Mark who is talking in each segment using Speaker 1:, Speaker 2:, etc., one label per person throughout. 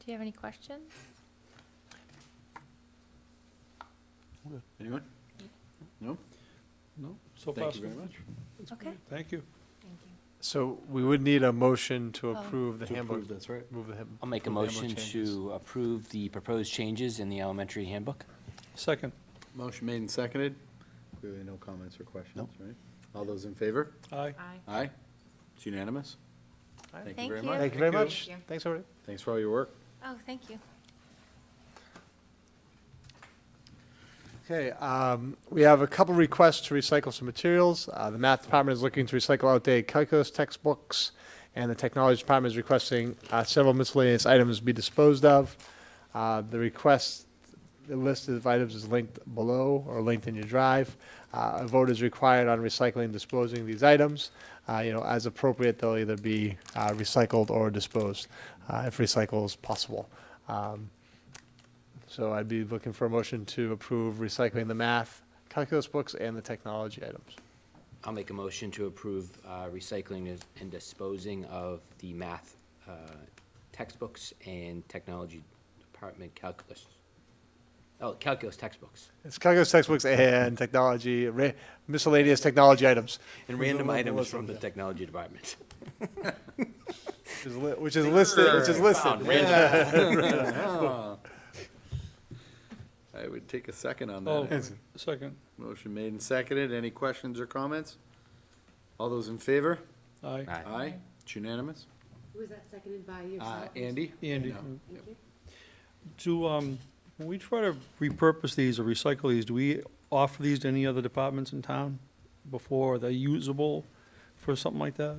Speaker 1: Do you have any questions?
Speaker 2: Anyone? No?
Speaker 3: No, so far.
Speaker 2: Thank you
Speaker 3: so
Speaker 2: very
Speaker 3: good.
Speaker 2: much.
Speaker 3: That's
Speaker 1: Okay.
Speaker 3: great. Thank you.
Speaker 1: Thank you.
Speaker 4: So we would need a motion to
Speaker 1: Oh.
Speaker 4: approve the
Speaker 2: To
Speaker 4: handbook.
Speaker 2: approve, that's right.
Speaker 4: Move the hand-
Speaker 5: I'll make a
Speaker 4: approve the handbook
Speaker 5: motion
Speaker 4: changes.
Speaker 5: to approve the proposed changes in the elementary handbook.
Speaker 3: Second,
Speaker 2: Motion made and seconded. Clearly no comments or questions, right? All those in favor?
Speaker 3: aye.
Speaker 2: Aye. It's unanimous.
Speaker 4: Aye.
Speaker 2: Thank you
Speaker 1: Thank
Speaker 2: very
Speaker 1: you.
Speaker 2: much.
Speaker 4: Thank you very
Speaker 3: Thank
Speaker 4: much.
Speaker 1: you.
Speaker 4: Thanks, everybody.
Speaker 2: Thanks for all your work.
Speaker 1: Oh, thank you.
Speaker 4: Okay, um, we have a couple requests to recycle some materials. Uh, the math department is looking to recycle outdated calculus textbooks, and the technology department is requesting, uh, several miscellaneous items be disposed of. Uh, the request, the list of items is linked below or linked in your drive. Uh, a vote is required on recycling, and disposing of these items. Uh, you know, as appropriate, they'll either be, uh, recycled or disposed, uh, if recycle is possible. Um, so I'd be looking for a motion to approve recycling the math, calculus books, and the technology items.
Speaker 5: I'll make a motion to approve uh, recycling is- and disposing of the math uh, textbooks and technology department calculus. Oh, calculus textbooks.
Speaker 4: It's calculus textbooks and technology, ra- miscellaneous technology items,
Speaker 5: And
Speaker 4: Those are
Speaker 5: random
Speaker 4: local
Speaker 5: items
Speaker 4: listings,
Speaker 5: from the
Speaker 4: yeah.
Speaker 5: technology department.
Speaker 4: which is li- which is listed, which is listed.
Speaker 2: Yeah. I would take a second on
Speaker 3: Oh,
Speaker 2: that. anyway.
Speaker 3: second,
Speaker 2: Motion made and seconded. Any questions or comments? All those in favor?
Speaker 3: aye.
Speaker 5: Aye.
Speaker 2: Aye. It's unanimous.
Speaker 6: Was that seconded by
Speaker 2: Uh,
Speaker 6: yourself?
Speaker 2: Andy?
Speaker 3: Andy,
Speaker 2: No.
Speaker 6: Thank you.
Speaker 3: do, um, when we try to repurpose these or recycle these, do we offer these to any other departments in town before they're usable for something like that?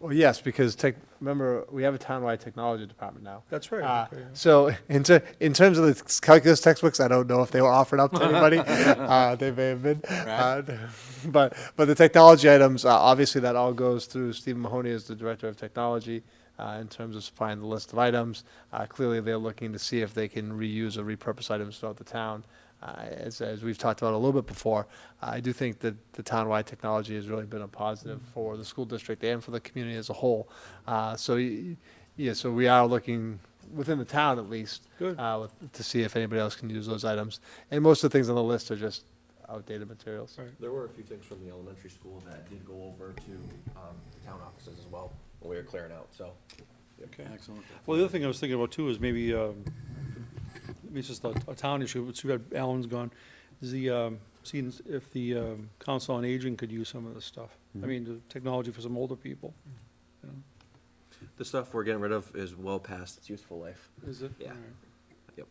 Speaker 4: Well, yes, because tech, remember, we have a townwide technology department now.
Speaker 3: That's
Speaker 4: Uh,
Speaker 3: right. okay, yeah.
Speaker 4: So in ter- in terms of the calculus textbooks, I don't know if they were offered up to anybody. Uh, they may have been. Uh, But, but the technology items, uh, obviously that all goes through Stephen Mahoney as the Director of Technology uh, in terms of supplying the list of items. Uh, Clearly, they're looking to see if they can reuse or repurpose items throughout the town. Uh, As, as we've talked about a little bit before, I do think that the townwide technology has really been a positive for the school district and for the community as a whole. Uh, So, y- yeah, so we are looking, within the town at least,
Speaker 3: Good.
Speaker 4: uh, with- to see if anybody else can use those items. And most of the things on the list are just outdated materials.
Speaker 3: Right.
Speaker 7: There were a few things from the elementary school that did go over to um, the town offices as well, when we were clearing out, so.
Speaker 3: Okay.
Speaker 2: Excellent.
Speaker 3: Well, the other thing I was thinking about too is maybe, um, maybe it's just a a town issue, but too bad Alan's gone, is the, um, seeing if the um, council on aging could use some of this stuff.
Speaker 2: Mm-hmm.
Speaker 3: I mean, the technology for some older people. you know.
Speaker 7: The stuff we're getting rid of is well past its useful life.
Speaker 3: Is it?
Speaker 7: Yeah. Yep.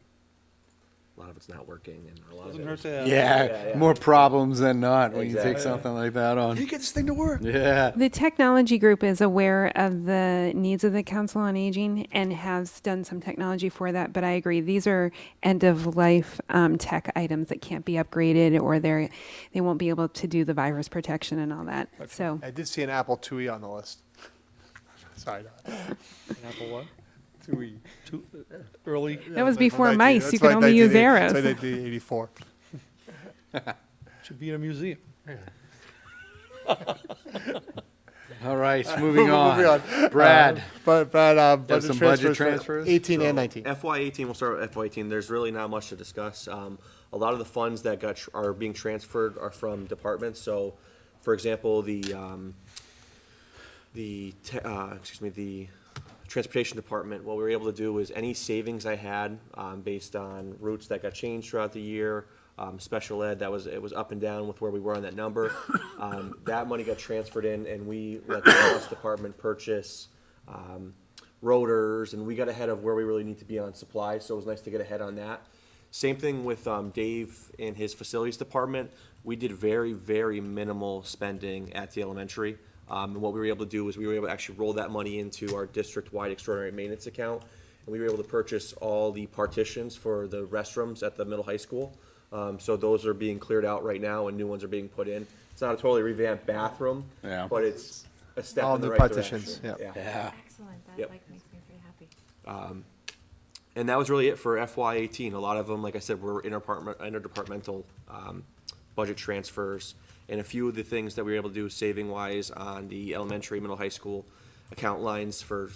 Speaker 7: A lot of it's not working and a lot of it
Speaker 3: Doesn't hurt
Speaker 7: is.
Speaker 3: to uh, have.
Speaker 7: Yeah, yeah.
Speaker 2: more problems than not
Speaker 7: when you take Exactly.
Speaker 3: something
Speaker 2: like that on.
Speaker 3: get this thing to work.
Speaker 2: Yeah.
Speaker 8: The technology group is aware of the needs of the Council on Aging and has done some technology for that, but I agree, these are end-of-life um, tech items that can't be upgraded or they're, they won't be able to do the virus protection and all that, so.
Speaker 4: I did see an Apple IIe on the list. Sorry, not
Speaker 3: Apple what?
Speaker 4: IIe.
Speaker 3: Too uh, early?
Speaker 8: That was before mice, you could only use
Speaker 4: It's like
Speaker 8: arrows.
Speaker 4: 1984.
Speaker 3: Should be in a museum.
Speaker 2: All right,
Speaker 4: Moving on.
Speaker 2: Brad.
Speaker 4: Uh, But, but, uh,
Speaker 2: There's
Speaker 4: budget
Speaker 2: some budget
Speaker 4: transfers for
Speaker 2: transfers?
Speaker 4: 18 and
Speaker 7: So,
Speaker 4: 19.
Speaker 7: FY eighteen, we'll start with FY eighteen, there's really not much to discuss. Um, a lot of the funds that got, tr- are being transferred are from departments, so, for example, the, um, the, te- uh, excuse me, the transportation department, what we were able to do was any savings I had, um, based on routes that got changed throughout the year, um, special ed, that was, it was up and down with where we were on that number. Um, that money got transferred in and we let the bus department purchase, um, rotors and we got ahead of where we really need to be on supplies, so it was nice to get ahead on that. Same thing with um, Dave in his facilities department. We did very, very minimal spending at the elementary. Um, and what we were able to do was we were able to actually roll that money into our district-wide extraordinary maintenance account. And we were able to purchase all the partitions for the restrooms at the middle high school. Um, so those are being cleared out right now and new ones are being put in. It's not a totally revamped bathroom,
Speaker 2: Yeah.
Speaker 7: but it's a step
Speaker 4: All
Speaker 7: in the
Speaker 4: new
Speaker 7: right
Speaker 4: partitions,
Speaker 7: direction.
Speaker 4: yeah.
Speaker 1: Excellent. That
Speaker 7: Yep.
Speaker 1: like makes me pretty happy.
Speaker 7: And that was really it for FY eighteen. A lot of them, like I said, were interpartment, interdepartmental, um, budget transfers. And a few of the things that we were able to do saving wise on the elementary, middle, high school account lines for